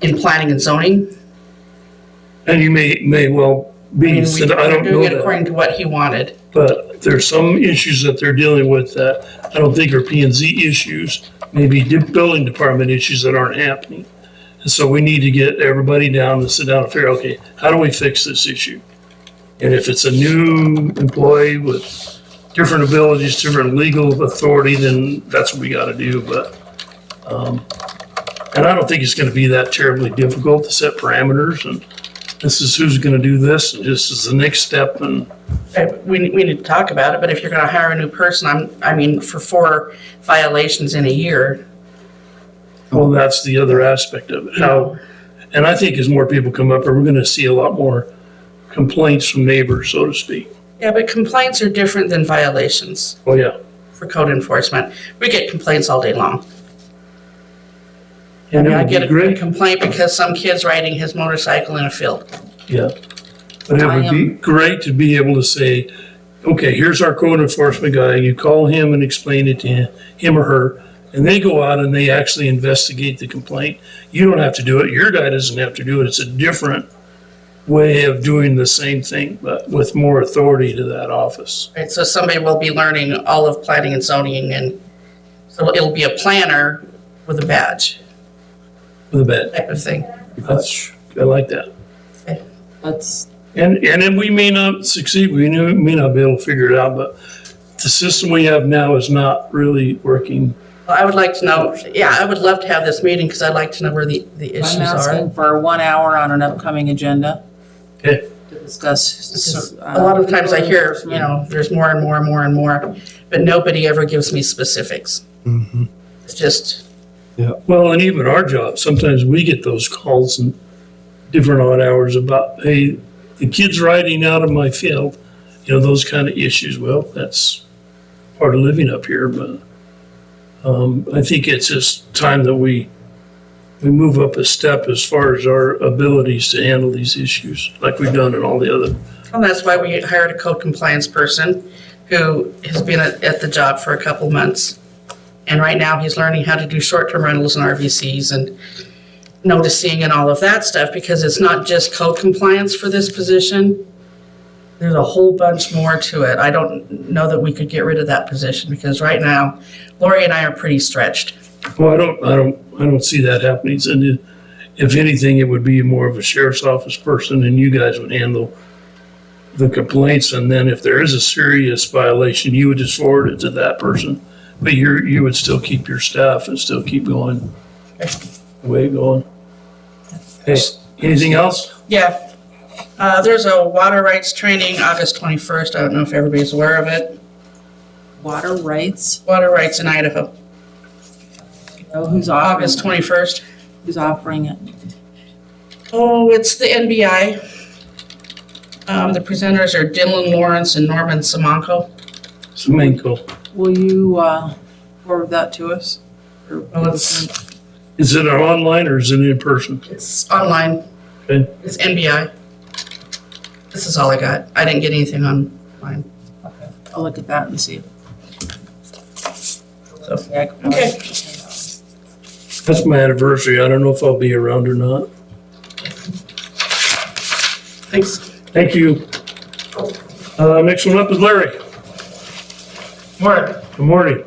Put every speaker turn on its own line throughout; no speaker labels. in planning and zoning.
And you may, may well
I mean,
be,
we-
said, I
we're
don't know
doing it
that.
according to what he wanted.
But there's some issues that they're dealing with that I don't think are P and Z issues, maybe de- building department issues that aren't happening. And so we need to get everybody down and sit down and figure, okay, how do we fix this issue? And if it's a new employee with different abilities, different legal authority, then that's what we gotta do, but, um, and I don't think it's gonna be that terribly difficult to set parameters and this is who's gonna do this, and this is the next step, and
Uh, We, we need to talk about it, but if you're gonna hire a new person, I'm, I mean, for four violations in a year,
Well, that's the other aspect of it. How, and I think as more people come up, we're gonna see a lot more complaints from neighbors, so to speak.
Yeah, but complaints are different than violations
Oh, yeah.
for code enforcement. We get complaints all day long. I
And
mean, I
it
get
would be
a
great,
complaint because some kid's riding his motorcycle in a field.
yeah. But it
I
would be great to be able to say, okay, here's our code enforcement guy, you call him and explain it to him- him or her. And they go out and they actually investigate the complaint. You don't have to do it, your guy doesn't have to do it, it's a different way of doing the same thing, but with more authority to that office.
Right, so somebody will be learning all of planning and zoning and so it'll be a planner with a badge
with a bed.
type of thing.
That's, I like that.
That's,
And, and then we may not succeed, we may may not be able to figure it out, but the system we have now is not really working.
Well, I would like to know, yeah, I would love to have this meeting because I'd like to know where the, the issues
I'm
are.
asking for one hour on an upcoming agenda
Okay,
to discuss.
Because A lot
uh,
of times I hear, you know, there's more and more and more and more, but nobody ever gives me specifics. It's just,
well, and even our job, sometimes we get those calls and different odd hours about, hey, the kid's riding out of my field, you know, those kind of issues. Well, that's part of living up here, but um, I think it's just time that we we move up a step as far as our abilities to handle these issues, like we've done in all the other.
And that's why we hired a code compliance person who has been at, at the job for a couple months. And right now, he's learning how to do short-term rentals and RVCs and noticing and all of that stuff, because it's not just code compliance for this position. There's a whole bunch more to it. I don't know that we could get rid of that position, because right now, Lori and I are pretty stretched.
Well, I don't, I don't, I don't see that happening. And if- if anything, it would be more of a sheriff's office person and you guys would handle the complaints. And then if there is a serious violation, you would just forward it to that person. But you're, you would still keep your staff and still keep going, the way going. Hey, anything else?
Yeah. Uh, there's a water rights training, August twenty-first. I don't know if everybody's aware of it.
Water rights,
Water rights in Idaho,
you know, who's
August
offering,
twenty-first.
who's offering it?
Oh, it's the NBI. Um, the presenters are Dylan Lawrence and Norman Simonko.
Semenko.
Will you, uh, forward that to us? Or-
Well, it's,
Is it online or is it in person?
it's online.
Okay.
It's NBI. This is all I got. I didn't get anything online.
I'll look at that and see. Okay.
Okay.
That's my anniversary. I don't know if I'll be around or not.
Thanks.
Thank you. Uh, next one up is Larry.
Morning.
Good morning.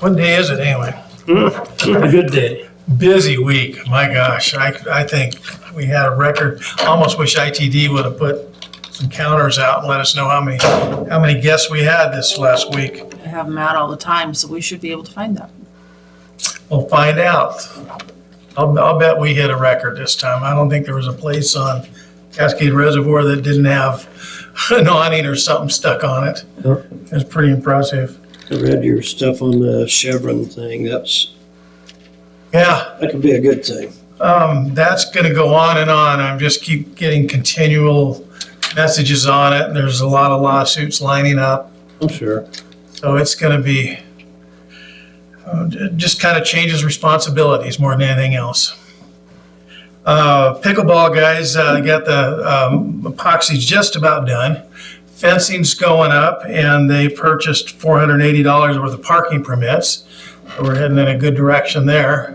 What day is it anyway?
A good day.
Busy week. My gosh, I, I think we had a record. Almost wish ITD would have put some counters out and let us know how many, how many guests we had this last week.
I have them out all the time, so we should be able to find that.
We'll find out. I'll, I'll bet we hit a record this time. I don't think there was a place on Cascade Reservoir that didn't have an awning or something stuck on it.
Yep.
It was pretty impressive.
I read your stuff on the Chevron thing. That's,
Yeah,
that could be a good thing.
Um, that's gonna go on and on. I'm just keep getting continual messages on it. and There's a lot of lawsuits lining up.
I'm sure.
So it's gonna be, uh, j- just kind of changes responsibilities more than anything else. Uh, pickleball guys, uh, got the, um, epoxy just about done. Fencing's going up and they purchased four hundred and eighty dollars worth of parking permits. So We're heading in a good direction there.